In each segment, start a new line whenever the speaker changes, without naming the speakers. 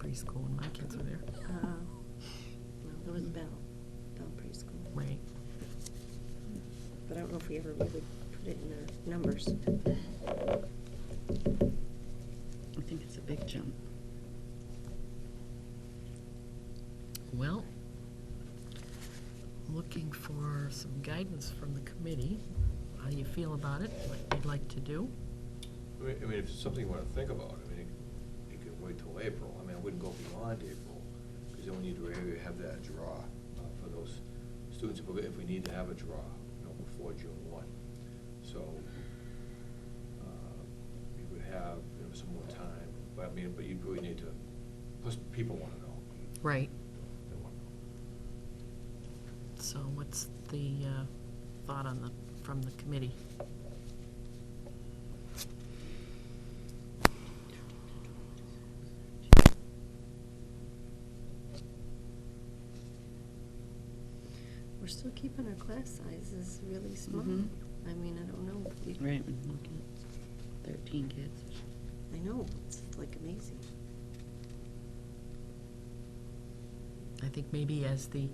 preschool when my kids were there.
Uh, No, there was Bell, Bell Preschool.
Right.
But I don't know if we ever really put it in the numbers.
I think it's a big jump.
Well, looking for some guidance from the committee, how you feel about it, what you'd like to do.
I mean, I mean, if it's something you want to think about, I mean, you could wait till April. I mean, I wouldn't go beyond April, because then we need to really have that draw uh, for those students, if we- if we need to have a draw, you know, before June one. So, uh, you would have, you know, some more time, but I mean, but you really need to, plus people want to know.
Right.
They want to know.
So what's the uh, thought on the, from the committee?
We're still keeping our class sizes really small.
Mhm.
I mean, I don't know. We-
Right, when you look at thirteen kids.
I know, it's like amazing.
I think maybe as the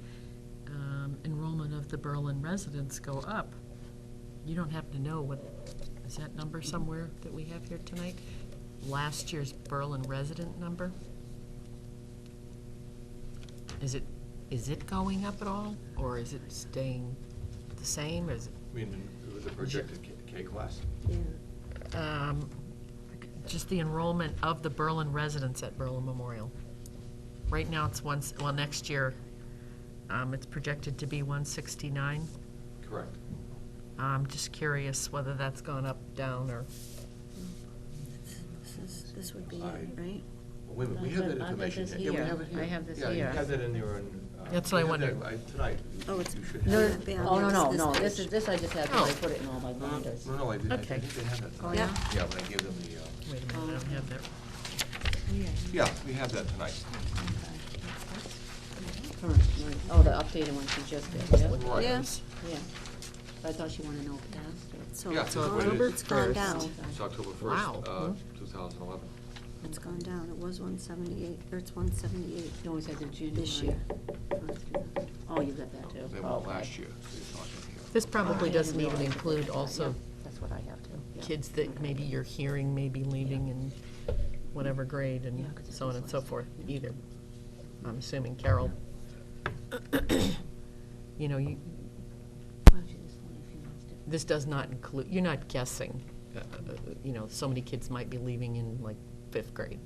um, enrollment of the Berlin residents go up, you don't happen to know what, is that number somewhere that we have here tonight? Last year's Berlin resident number? Is it, is it going up at all, or is it staying the same, is it,
I mean, with the projected K- K class,
Yeah,
um, just the enrollment of the Berlin residents at Berlin Memorial? Right now, it's once, well, next year, um, it's projected to be one sixty-nine.
correct.
I'm just curious whether that's gone up, down, or,
this is, this would be
I-
it, right?
Well, Wait a minute, we have that information.
this
here. Yeah,
here.
we have it here.
I have this
Yeah, you
here.
have that in there on. uh,
That's what I
you have that,
wondered.
uh, Tonight. You-
Oh, it's-
you should
No,
have
no,
it.
they
Oh, no, no,
This-
no,
this
this
page.
is, this I just have, 'cause I put it in all my
No, no,
binders.
no, no, I did, I
Okay.
think they had that.
Oh,
tonight.
yeah?
Yeah, when I gave them the, uh,
wait a minute, I don't have that.
yeah, we have that tonight.
Current, right. Oh, the updated one she just did, yeah,
Right.
Yes.
yeah. But I thought she wanted to know past
So
Yeah,
it's
so what it
gone,
is.
it's gone
First.
down.
It's October
Wow. Hmm?
first, uh, two thousand eleven.
It's gone down. It was one seventy-eight, or it's one seventy-eight.
or. No, we said the June.
This
one.
year.
Oh, you got that too.
They went
Okay.
last year, so you're talking here.
This probably
I
doesn't
didn't
even
realize it.
include
Yeah,
also
That's what I have too. yeah.
kids that maybe you're hearing may be leaving in whatever grade and
Yeah, 'cause it
so on
was
and so
last-
forth
yeah.
either. I'm assuming Carol, you know, you,
Why don't you just leave if you want to?
this does not include, you're not guessing, uh, uh, you know, so many kids might be leaving in like fifth grade.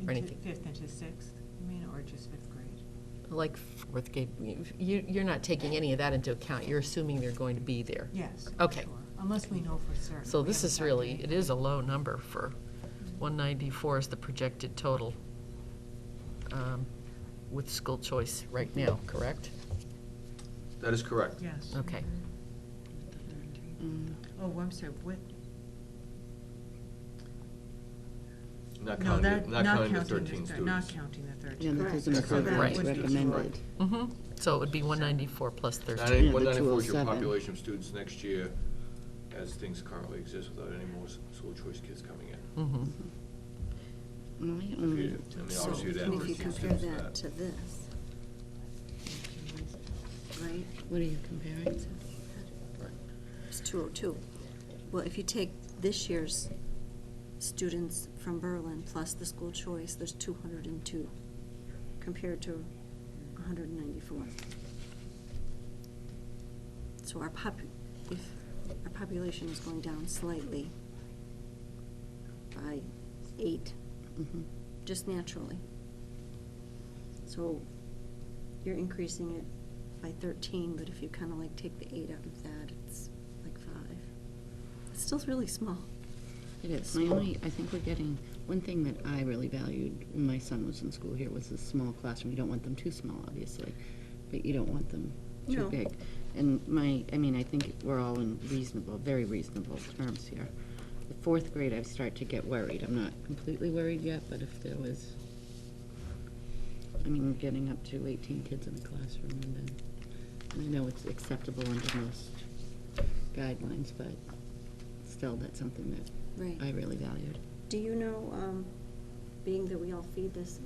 Into
anything.
Fifth into sixth, you mean, or just fifth grade?
Like fourth grade, you, you're not taking any of that into account. You're assuming they're going to be there.
Yes.
Okay.
sure. Unless we know for certain.
So
We
this is
haven't
really, it
calculated.
is a low number for, 194 is the projected total um, with school choice right now, correct?
That is correct.
Yes.
Okay.
Mm.
Oh, I'm sorry, what?
Not
No,
counting,
that,
the- not counting the
this
thirteen
grad- Not
students.
counting the
Yeah,
thirteen.
that
Correct.
doesn't include
Right.
what's
Right.
recommended.
Mm-hmm. So it would be 194 plus 13.
Yeah, the
One ninety-four
oh
is your
207.
population of students next year, as things currently exist without any more s- school choice kids coming in.
Mm-hmm.
Mm, I
If
don't know.
you- I mean,
So,
obviously, you'd add
and if you
13
compare
students to
that to this, right?
What are you comparing?
It's 202. Well, if you take this year's students from Berlin plus the school choice, there's 202 compared to 194. So our pop, if our population is going down slightly by eight,
Mhm.
just naturally. So you're increasing it by thirteen, but if you kind of like take the eight out of that, it's like five. It's still really small.
It is. My only, I think we're getting, one thing that I really valued when my son was in school here was the small classroom. You don't want them too small, obviously, but you don't want them too
No.
big. And my, I mean, I think we're all in reasonable, very reasonable terms here. The fourth grade, I start to get worried. I'm not completely worried yet, but if there was, I mean, getting up to eighteen kids in the classroom and then, and I know it's acceptable under most guidelines, but still, that's something that
Right.
I really valued.
Do you know, um, being that we all feed this